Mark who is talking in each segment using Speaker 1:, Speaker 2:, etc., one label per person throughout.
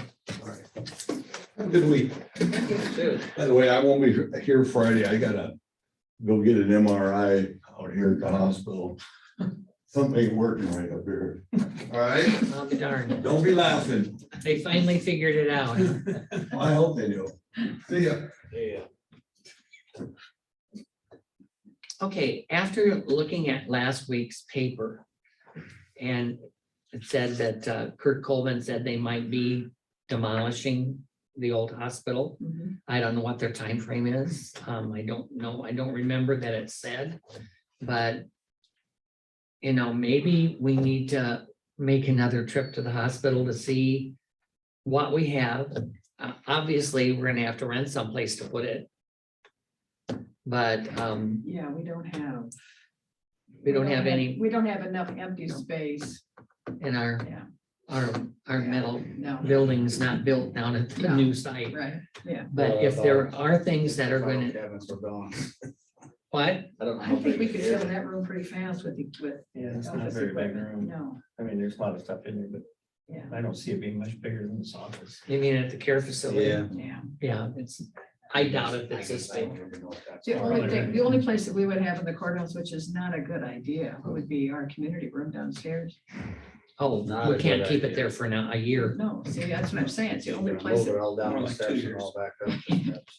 Speaker 1: Have a Good week. By the way, I won't be here Friday. I gotta go get an MRI out here at the hospital. Something ain't working right up here. All right,
Speaker 2: I'll be darned.
Speaker 1: don't be laughing.
Speaker 2: um, They finally figured it out.
Speaker 1: I hope they do. See ya.
Speaker 2: Okay, after looking at last week's paper. And it said that uh, Kurt Coleman said they might be demolishing the old hospital. I don't know what their time frame is. Um, I don't know. I don't remember that it said, but. You know, maybe we need to make another trip to the hospital to see what we have. Uh, obviously, we're gonna have to rent someplace to put it. But, um,
Speaker 3: Yeah, we don't have.
Speaker 2: we don't have any
Speaker 3: We don't have enough empty space,
Speaker 2: in our,
Speaker 3: Yeah.
Speaker 2: our, our metal
Speaker 3: no,
Speaker 2: building's not built down at the
Speaker 3: No.
Speaker 2: new site.
Speaker 3: right, yeah.
Speaker 2: But if there are things that are
Speaker 4: File
Speaker 2: gonna,
Speaker 4: Cabinets are gone.
Speaker 2: what?
Speaker 4: I don't know.
Speaker 3: I
Speaker 4: how
Speaker 3: think
Speaker 4: big
Speaker 3: we
Speaker 4: it
Speaker 3: could
Speaker 4: is.
Speaker 3: fill that room pretty fast with, the- with
Speaker 5: Yeah, it's not a
Speaker 3: office
Speaker 5: very big
Speaker 3: equipment,
Speaker 5: room.
Speaker 3: no,
Speaker 5: I mean, there's a lot of stuff in there, but
Speaker 3: yeah,
Speaker 5: I don't see it being much bigger than this office.
Speaker 2: You mean at the care facility?
Speaker 3: yeah.
Speaker 2: Yeah, it's, I doubt it, it's this
Speaker 4: I don't
Speaker 2: big.
Speaker 4: even know if that's
Speaker 3: The only
Speaker 5: Probably
Speaker 3: thing,
Speaker 5: right.
Speaker 3: the only place that we would have in the courthouse, which is not a good idea, would be our community room downstairs.
Speaker 2: Oh,
Speaker 4: Not
Speaker 2: we
Speaker 4: a
Speaker 2: can't
Speaker 4: good
Speaker 2: keep it
Speaker 4: idea.
Speaker 2: there for now, a year.
Speaker 3: No, see, that's what I'm saying, it's the only
Speaker 4: Move
Speaker 3: place,
Speaker 4: it all down
Speaker 5: More
Speaker 4: the
Speaker 5: like two
Speaker 4: steps and
Speaker 5: years.
Speaker 4: all back up the steps.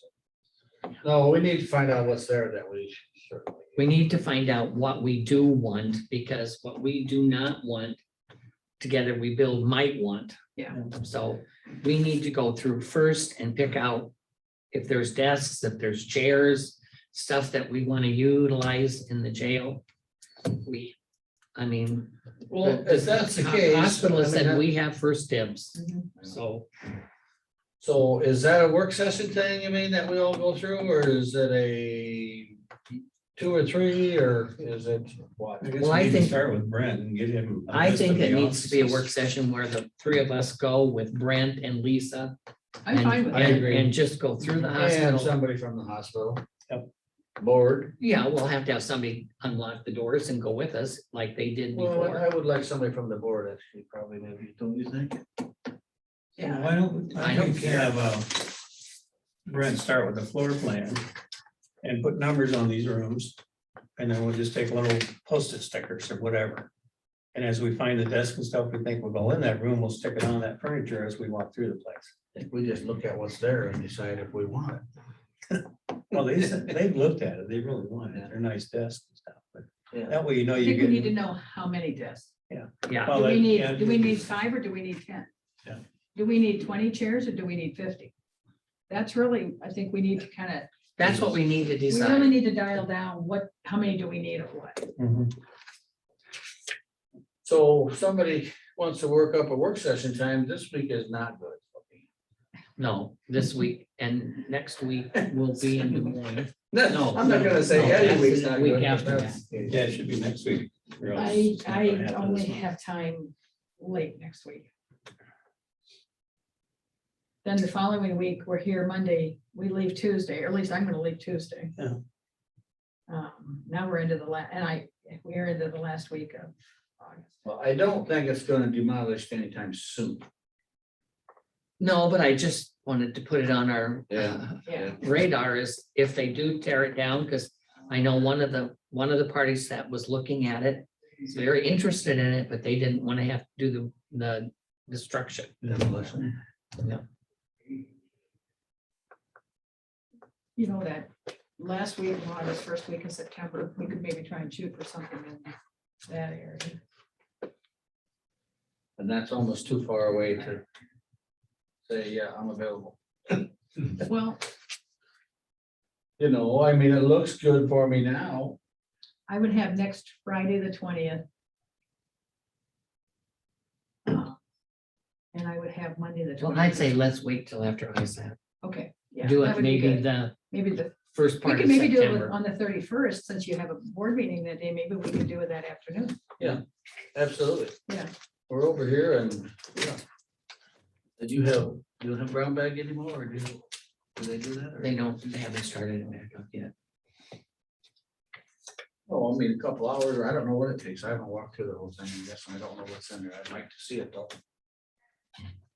Speaker 4: No, we need to find out what's there that we certainly.
Speaker 2: We need to find out what we do want, because what we do not want, together we build might want.
Speaker 3: Yeah.
Speaker 2: So we need to go through first and pick out if there's desks, if there's chairs, stuff that we want to utilize in the jail. We, I mean.
Speaker 4: Well, if that's the
Speaker 2: ho-
Speaker 4: case.
Speaker 2: Hospital has
Speaker 4: I mean,
Speaker 2: said
Speaker 4: that- Mm-hmm.
Speaker 2: we have first dibs,
Speaker 3: Mhm.
Speaker 2: so
Speaker 4: So is that a work session thing, you mean, that we all go through, or is it a two or three, or is it what?
Speaker 5: I guess
Speaker 2: Well,
Speaker 5: we
Speaker 2: I
Speaker 5: need to
Speaker 2: think-
Speaker 5: Start with Brent and get him. a
Speaker 2: I
Speaker 5: list
Speaker 2: think
Speaker 5: of
Speaker 2: it
Speaker 5: the
Speaker 2: needs to be a work
Speaker 5: offices.
Speaker 2: session where the three of us go with Brent and Lisa.
Speaker 5: uh,
Speaker 3: I'm
Speaker 2: and-
Speaker 3: fine with
Speaker 4: I
Speaker 3: that.
Speaker 2: and- And just go through the
Speaker 4: And uh,
Speaker 2: hospital.
Speaker 4: somebody from the hospital.
Speaker 5: Yep.
Speaker 4: Board.
Speaker 2: Yeah, we'll have to have somebody unlock the doors and go with us like they did
Speaker 4: Well,
Speaker 3: uh,
Speaker 2: before.
Speaker 4: I would like somebody from the board, actually, probably maybe, don't you think?
Speaker 5: Well,
Speaker 3: Yeah,
Speaker 5: Why don't,
Speaker 2: I
Speaker 5: I
Speaker 2: don't
Speaker 5: don't
Speaker 2: care.
Speaker 5: have, uh, Brent start with the floor plan and put numbers on these rooms. And then we'll just take little post-it stickers or whatever. And as we find the desk and stuff, we think will go in that room, we'll stick it on that furniture as we walk through the place.
Speaker 4: I think we just look at what's there and decide if we want it.
Speaker 5: Well, they, they've looked at it, they really want it, they're nice desks and stuff, but
Speaker 4: Yeah.
Speaker 5: that way you know
Speaker 3: I
Speaker 5: you
Speaker 3: think we need to
Speaker 5: get.
Speaker 3: know how many desks.
Speaker 2: Yeah,
Speaker 5: Well,
Speaker 3: Do we
Speaker 5: that-
Speaker 3: need,
Speaker 5: yeah.
Speaker 3: do we need five or do we need ten?
Speaker 5: Yeah.
Speaker 3: Do we need twenty chairs or do we need fifty? That's really, I think we need to kind of,
Speaker 2: that's what we need to
Speaker 3: we really
Speaker 2: decide.
Speaker 3: need to dial down what, how many do we need of what?
Speaker 5: Mhm.
Speaker 4: So if somebody wants to work up a work session time, this week is not good. for me.
Speaker 2: No,
Speaker 3: Mm-hmm.
Speaker 2: this week and next week will be in the morning. No,
Speaker 4: I'm not
Speaker 2: no,
Speaker 4: gonna say
Speaker 2: no,
Speaker 4: any
Speaker 2: that's
Speaker 4: week's
Speaker 2: the
Speaker 4: not
Speaker 2: week
Speaker 4: good. but
Speaker 2: after
Speaker 4: that's-
Speaker 5: Yeah, it should be next week. or else
Speaker 3: I,
Speaker 5: it's not
Speaker 3: I
Speaker 5: gonna happen this
Speaker 3: only
Speaker 5: month.
Speaker 3: have time late next week. Then the following week, we're here Monday, we leave Tuesday, or at least I'm gonna leave Tuesday.
Speaker 5: Yeah.
Speaker 3: Um, now we're into the la, and I, we're into the last week of August.
Speaker 4: Well, I don't think it's gonna demolish anytime soon.
Speaker 2: No, but I just wanted to put it on our uh,
Speaker 4: Yeah.
Speaker 3: Yeah.
Speaker 2: radar is if they do tear it down, because I know one of the, one of the parties that was looking at it is very interested in it, but they didn't want to have to do the, the destruction.
Speaker 4: Demolition.
Speaker 3: you know, that last week, in August, first week in September, we could maybe try and shoot for something in that area.
Speaker 4: And that's almost too far away to say, yeah, I'm available.
Speaker 3: Well,
Speaker 4: You know, I mean, it looks good for me now.
Speaker 3: I would have next Friday, the twentieth. And I would have Monday, the
Speaker 2: Well,
Speaker 3: twentieth.
Speaker 2: I'd say let's wait till after ISAC.
Speaker 3: Okay. yeah,
Speaker 2: Do
Speaker 3: that
Speaker 2: it
Speaker 3: would be
Speaker 2: maybe
Speaker 3: good.
Speaker 2: the
Speaker 3: Maybe the,
Speaker 2: first
Speaker 3: we
Speaker 2: part
Speaker 3: could
Speaker 2: of
Speaker 3: maybe do it with-
Speaker 2: September.
Speaker 3: on the thirty-first, since you have a board meeting that day, maybe we could do it that afternoon.
Speaker 4: Absolutely.
Speaker 3: Yeah.
Speaker 4: We're over here and, yeah. Did you have, you don't have brown bag anymore, or do, you- do they do that? or-
Speaker 2: They don't, they haven't started it back up yet.
Speaker 4: Oh, I mean, a couple hours, or I don't know what it takes. I haven't walked through the whole thing, I guess, and I don't know what's in there. I'd like to see it though.